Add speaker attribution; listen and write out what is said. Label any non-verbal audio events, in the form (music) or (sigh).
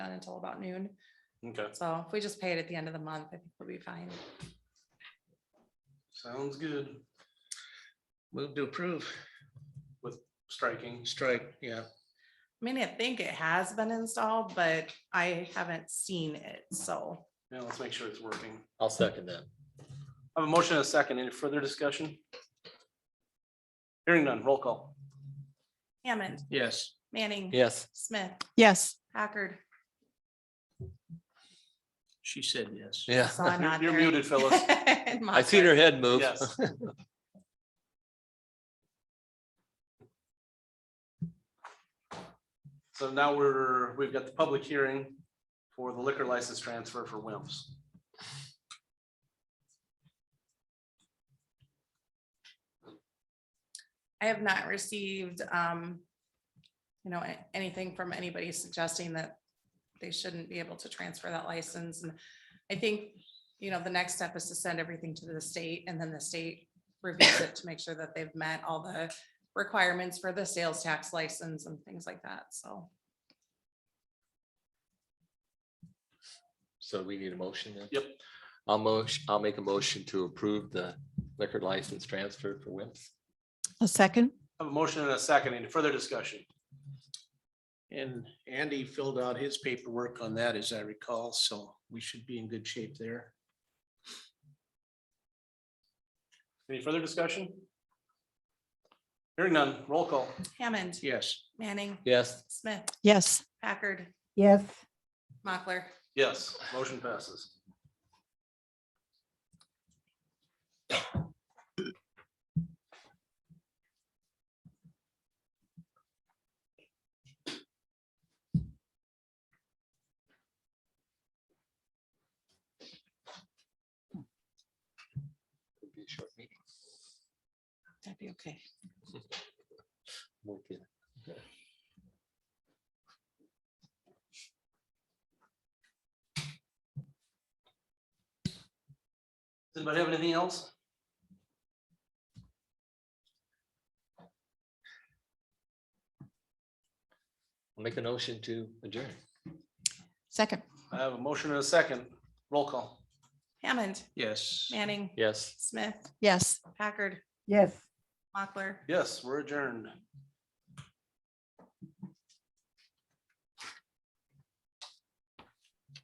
Speaker 1: until about noon.
Speaker 2: Okay,
Speaker 1: So if we just pay it at the end of the month, I think we'll be fine.
Speaker 2: sounds good.
Speaker 3: Move to approve,
Speaker 2: Striking.
Speaker 3: strike, yeah,
Speaker 1: I mean, I think it has been installed, but I haven't seen it, so.
Speaker 2: Yeah, let's make sure it's working.
Speaker 4: I'll second that.
Speaker 2: I have a motion and a second. Any further discussion? Hearing none, roll call.
Speaker 1: Hammond,
Speaker 3: yes.
Speaker 1: Manning.
Speaker 4: Yes.
Speaker 1: Smith,
Speaker 5: yes,
Speaker 2: (laughs)
Speaker 1: Packard.
Speaker 3: She said yes.
Speaker 4: Yeah. (laughs)
Speaker 1: Saw a
Speaker 2: You're-
Speaker 1: nod
Speaker 2: you're
Speaker 1: there. (laughs)
Speaker 2: muted, Phyllis.
Speaker 1: And
Speaker 4: I seen her
Speaker 1: Mockler.
Speaker 4: head move.
Speaker 2: Yes.
Speaker 4: (laughs)
Speaker 2: So now we're, we've got the public hearing for the liquor license transfer for Wimps.
Speaker 1: I have not received, um, you know, a- anything from anybody suggesting that they shouldn't be able to transfer that license. And I think, you know, the next step is to send everything to the state and then the state reviews it to make sure that they've met all the requirements for the sales tax license and things like that. So
Speaker 4: So we need a motion then?
Speaker 2: Yep.
Speaker 4: I'll motion, I'll make a motion to approve the liquor license transfer for Wimps.
Speaker 5: a second,
Speaker 2: I Have a motion and a second. Any further discussion?
Speaker 3: And Andy filled out his paperwork on that, as I recall, so we should be in good shape there.
Speaker 2: Any further discussion? Hearing none, roll call.
Speaker 1: Hammond,
Speaker 3: Yes,
Speaker 1: Manning,
Speaker 4: Yes.
Speaker 1: Smith,
Speaker 5: yes,
Speaker 1: Packard,
Speaker 6: yes,
Speaker 1: Mockler.
Speaker 2: Yes, motion passes.
Speaker 4: It'll be a short meeting.
Speaker 1: That'd be
Speaker 4: (laughs)
Speaker 1: okay.
Speaker 4: Won't be-
Speaker 2: Does anybody have anything else?
Speaker 4: I'll Make a motion to adjourn.
Speaker 5: second,
Speaker 2: I have a motion and a second. Roll call.
Speaker 1: Hammond,
Speaker 3: yes.
Speaker 1: Manning,
Speaker 4: Yes.
Speaker 1: Smith,
Speaker 5: yes.
Speaker 1: Packard,
Speaker 6: yes.
Speaker 1: Mockler.
Speaker 2: Yes, we're adjourned.